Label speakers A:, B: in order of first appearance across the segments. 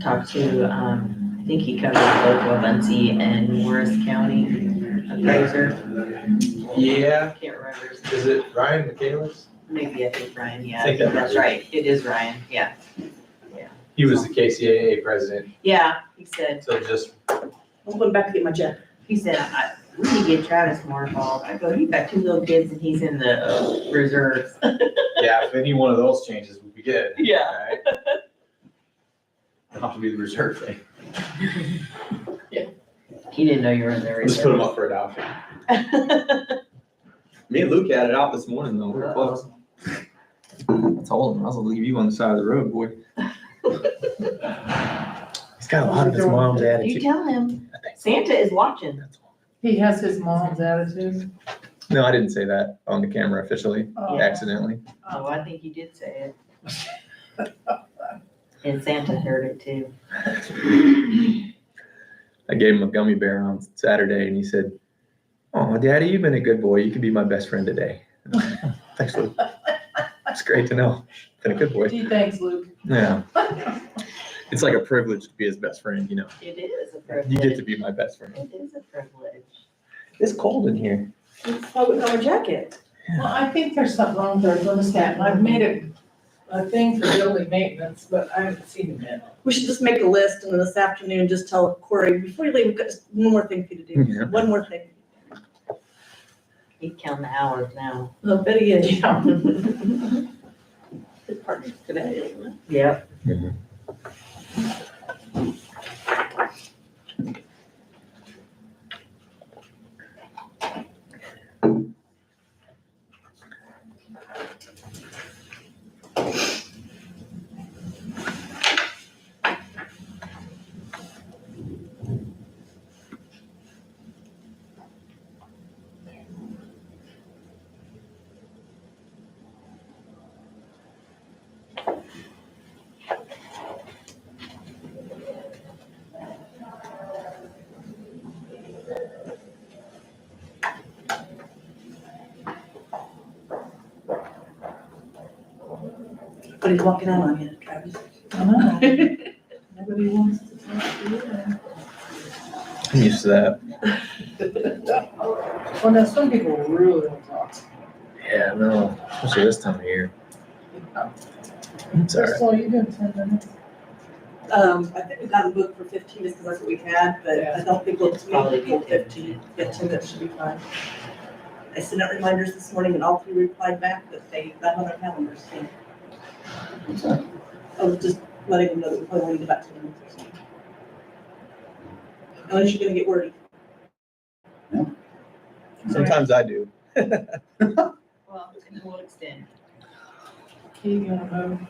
A: talked to, um, I think he covers both Wabunsee and Morris County appraiser. I
B: Yeah,
A: can't remember. his-
B: is it Ryan McCandless?
A: Maybe I think Ryan, yeah,
B: I
A: I
B: think
A: think
B: that
A: that's
B: might
A: right. It is Ryan, yeah.
B: He was the KCAA president,
A: Yeah, he said,
B: so just,
C: I'm going back to get my check.
A: he said, I, we need to get Travis more involved. I go, you've got two little kids and he's in the uh, reserves.
B: yeah, if any one of those changes would be good.
A: Yeah.
B: right? I'll have to do the reserve thing.
A: He didn't know you were in the reserves.
B: Let's put them up for adoption.
D: Me and Luke had it out this morning though, we were close. I told him, I was gonna leave you on the side of the road, boy.
E: He's got a lot of his mom's
A: You
E: attitude.
A: tell him, Santa is watching.
F: He has his mom's attitude.
D: No, I didn't say that on the camera officially,
F: Oh.
D: accidentally.
A: Oh, I think you did say it. And Santa heard it too.
D: I gave him a gummy bear on Saturday and he said, oh, daddy, you've been a good boy. You could be my best friend today. Thanks, Luke. It's great to know. Been a good boy.
F: Gee, thanks, Luke.
D: Yeah. It's like a privilege to be his best friend, you know.
A: It is a
D: You get to
A: privilege.
D: be my best friend.
A: It is a privilege.
D: It's cold in here.
C: That's why we got my jacket.
F: Well, I think there's something wrong with our thermostat, and I've made it a thing for building maintenance, but I haven't seen it yet.
C: We should just make a list and then this afternoon just tell Corey, before you leave, we've got just one more thing for you to do.
D: Yeah.
C: One more thing.
A: He's counting the hours now.
C: No, bet he is.
F: Yeah.
C: His partner's today, isn't it?
A: Yep.
C: But he's walking out on you, Travis.
F: I know. Nobody wants to talk to you.
D: I'm used to that.
F: Well, now, some people really don't talk.
D: Yeah, no, especially this time of year. It's all right.
F: Crystal, you doing ten minutes?
C: Um, I think we got a book for fifteen, just because that's what we had, but I don't think we'll it's
A: Probably
C: probably
A: be
C: full fifteen. Yeah, ten, that should be fine. I sent out reminders this morning and all three replied back that they got on their calendars, so. I was just letting them know that we probably want to get back to them. Unless you're gonna get wordy.
D: Sometimes I do.
A: Well, and we'll extend.
F: Okay, you wanna move?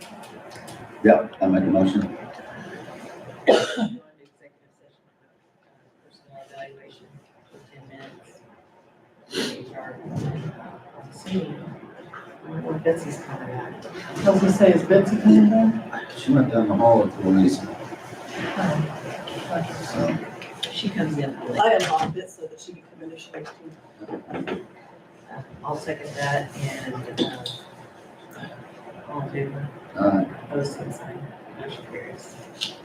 E: Yep, I make a motion.
A: Go into executive session for Personnel evaluation for ten minutes. HR. See, I wonder what Betsy's coming out.
F: I was gonna say, is Betsy coming back?
E: She went down the hall with Louise, so.
A: She comes in. late.
C: I unlocked it so that she could come in if she likes to.
A: I'll second that and, uh, all in favor.
E: uh,
A: Opposed, same sign. Motion carries.